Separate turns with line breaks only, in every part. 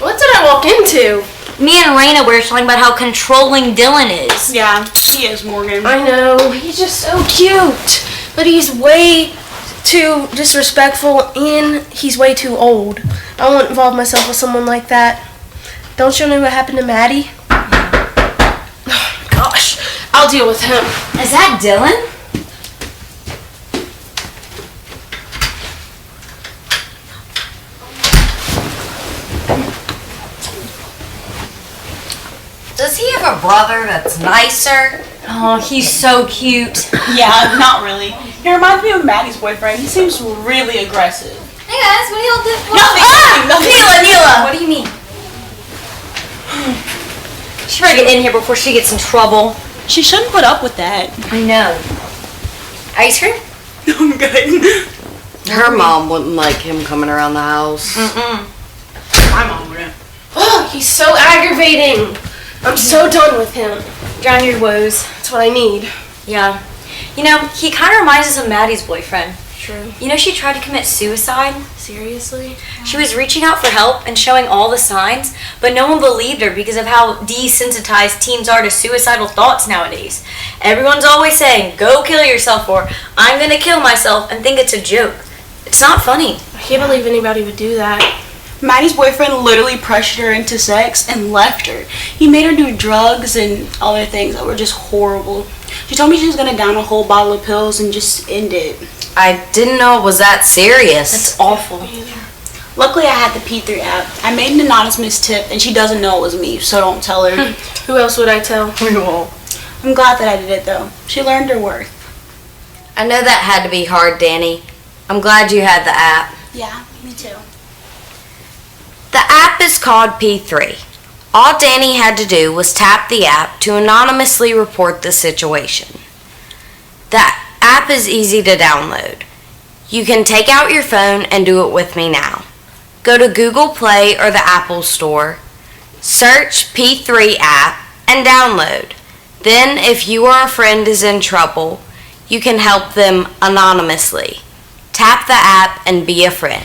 walk into.
Me and Raina were talking about how controlling Dylan is.
Yeah, he is Morgan.
I know, he's just so cute. But he's way too disrespectful and he's way too old. I won't involve myself with someone like that. Don't you know what happened to Maddie? Oh my gosh, I'll deal with him.
Is that Dylan?
Does he have a brother that's nicer?
Oh, he's so cute.
yeah, not really. He reminds me of Maddie's boyfriend. He seems really aggressive.
Hey guys, what do y'all do? What
Nothing. nothing.
What do you mean? She better get in here before she gets in trouble.
She shouldn't put up with that.
I know. Ice cream?
I'm good.
Her mom wouldn't like him coming around the house.
My mom wouldn't.
Oh, he's so aggravating. I'm so done with him.
Drown your woes.
That's what I need.
Yeah. You know, he kind of reminds us of Maddie's boyfriend.
True.
You know, she tried to commit suicide.
Seriously?
She was reaching out for help and showing all the signs, but no one believed her because of how desensitized teens are to suicidal thoughts nowadays. Everyone's always saying, go kill yourself, or I'm gonna kill myself, and think it's a joke. It's not funny.
I can't believe anybody would do that.
Maddie's boyfriend literally pressured her into sex and left her. He made her do drugs and other things that were just horrible. She told me she was gonna down a whole bottle of pills and just end it.
I didn't know it was that serious.
That's awful.
Luckily, I had the P3 app. I made an anonymous tip, and she doesn't know it was me, so don't tell her.
Who else would I tell?
I'm glad that I did it though. She learned her worth.
I know that had to be hard, Danny. I'm glad you had the app.
Yeah, me too.
The app is called P3. All Danny had to do was tap the app to anonymously report the situation. The app is easy to download. You can take out your phone and do it with me now. Go to Google Play or the Apple Store, search P3 app, and download. Then, if you or a friend is in trouble, you can help them anonymously. Tap the app and be a friend.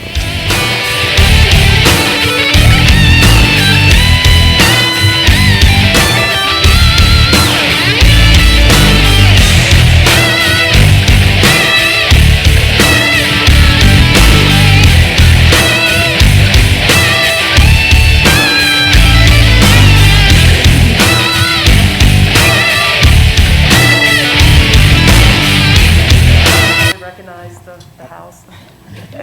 recognize the, the house.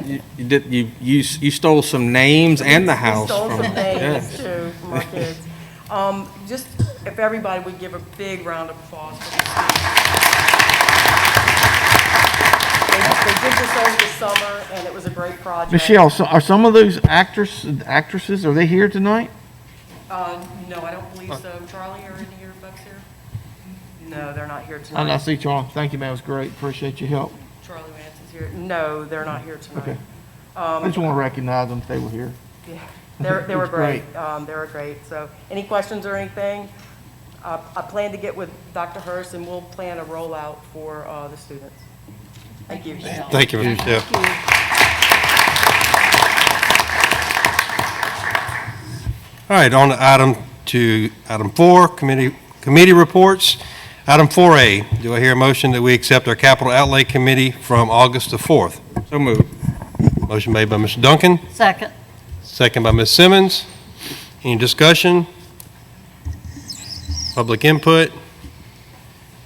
You you did, you, you s- you stole some names and the house
Stole
from,
some
yeah.
names too from our kids. Um, just if everybody would give a big round of applause for these kids. They they did this over the summer and it was a great project.
Michelle, so are some of those actors, actresses, are they here tonight?
Uh, no, I don't believe so. Charlie, are any of your folks here? No, they're not here
I I
tonight.
see Charlie, thank you, man, it was great, appreciate your help.
Charlie Vance is here. No, they're not here tonight. Um,
Okay. I just want to recognize them if they were here.
Yeah, They're, they were
It's great.
great. Um, they were great. So, any questions or anything? Uh, I plan to get with Dr. Hurst and we'll plan a rollout for, uh, the students. Thank you.
Thank you, Michelle. All right, on to item to, item four, committee, committee reports. Item 4A, do I hear a motion that we accept our capital outlay committee from August the 4th?
So moved.
Motion made by Mr. Duncan. Second. Second by Ms. Simmons. Any discussion? Public input?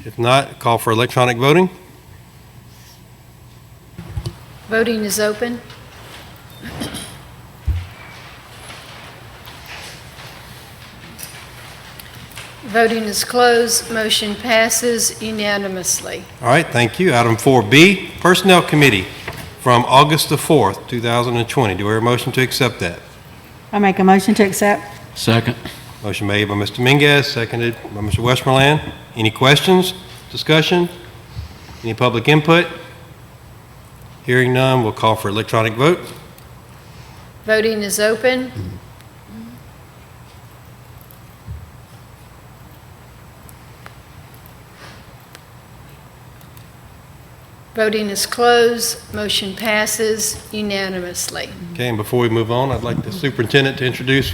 If not, Uh, call for electronic voting.
Voting is open. Voting is closed. Motion passes unanimously.
All right, thank you. Item 4B, Personnel Committee from August the 4th, 2020. Do we hear a motion to accept that?
I make a motion to accept.
Second.
Motion made by Mr. Mingus, seconded by Mr. Westmoreland. Any questions, discussion? Any public input? Hearing none, we'll call for electronic vote.
Voting is open. Voting is closed. Motion passes unanimously.
Okay, and before we move on, I'd like the superintendent to introduce